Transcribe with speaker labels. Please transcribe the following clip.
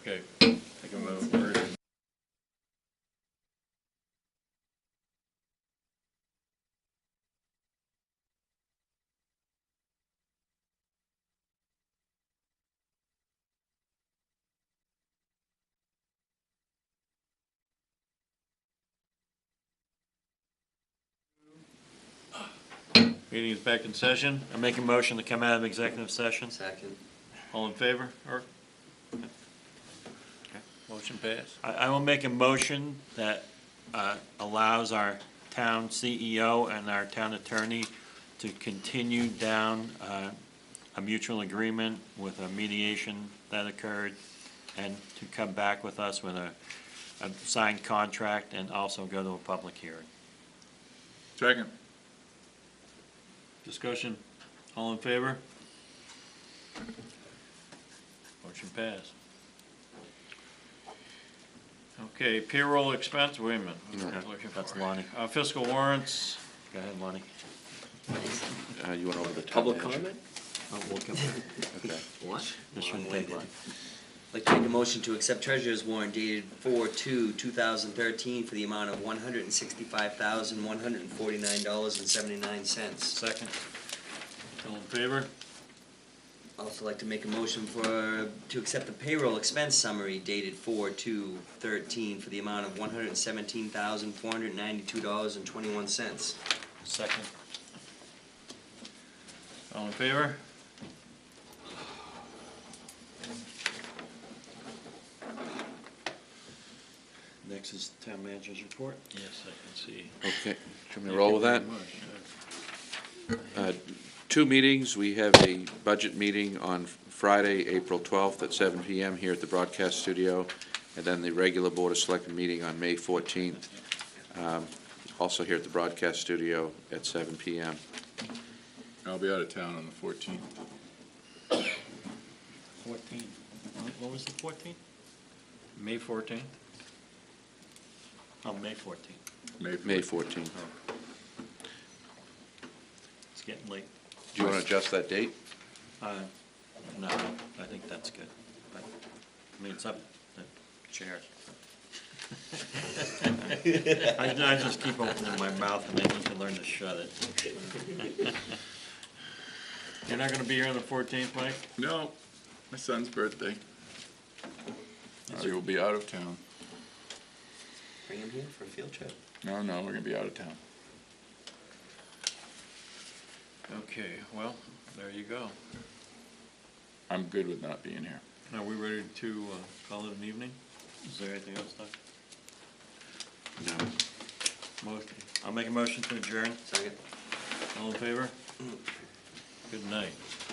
Speaker 1: Okay, take a vote. Meeting is back in session. I'm making motion to come out of executive session.
Speaker 2: Second.
Speaker 1: All in favor, Eric? Motion passed. I, I will make a motion that uh, allows our town CEO and our town attorney to continue down uh, a mutual agreement with a mediation that occurred, and to come back with us with a, a signed contract, and also go to a public hearing.
Speaker 3: Second.
Speaker 1: Discussion, all in favor? Motion passed. Okay, payroll expense, wait a minute. I'm not looking for
Speaker 4: That's
Speaker 1: it.
Speaker 4: Lonnie.
Speaker 1: Uh, fiscal warrants,
Speaker 4: Go ahead, Lonnie.
Speaker 3: Uh, you went over the. town
Speaker 2: Public
Speaker 3: manager.
Speaker 2: comment?
Speaker 4: Oh, we'll come-
Speaker 3: Okay.
Speaker 2: What?
Speaker 4: This
Speaker 2: Long
Speaker 4: shouldn't take
Speaker 2: winded.
Speaker 4: long.
Speaker 2: Like to make a motion to accept treasurer's warrant dated four two, two thousand thirteen for the amount of one hundred and sixty-five thousand, one hundred and forty-nine dollars and seventy-nine cents.
Speaker 1: second. All in favor?
Speaker 2: Also like to make a motion for, to accept the payroll expense summary dated four two thirteen for the amount of one hundred and seventeen thousand, four hundred and ninety-two dollars and twenty-one cents.
Speaker 1: Second. All in favor?
Speaker 4: Next is town manager's report.
Speaker 1: Yes, I can see.
Speaker 3: Okay, should we roll with that? Uh, Two meetings, we have a budget meeting on Friday, April 12th at 7 PM here at the broadcast studio, and then the regular Board of Selectmen meeting on May 14th, um, also here at the broadcast studio at 7 PM.
Speaker 5: I'll be out of town on the fourteenth.
Speaker 1: Fourteen. What was the fourteen? May fourteenth? Oh, May fourteenth.
Speaker 3: May 14th.
Speaker 1: It's getting late.
Speaker 3: Do you want to adjust that date?
Speaker 1: Uh, No, I think that's good, but, I mean, it's up to the chair. I I just keep opening my mouth and they need to learn to shut it. You're not gonna be here on the fourteenth, Mike?
Speaker 5: No, my son's birthday. I will be out of town.
Speaker 2: Bring him here for a field trip.
Speaker 5: No, no, we're gonna be out of town.
Speaker 1: Okay, well, there you go.
Speaker 5: I'm good with not being here.
Speaker 1: Are we ready to uh, call it an evening? Is there anything else, Doc?
Speaker 3: No.
Speaker 1: Motion. I'll make a motion to adjourn.
Speaker 2: Second.
Speaker 1: All in favor? Good night.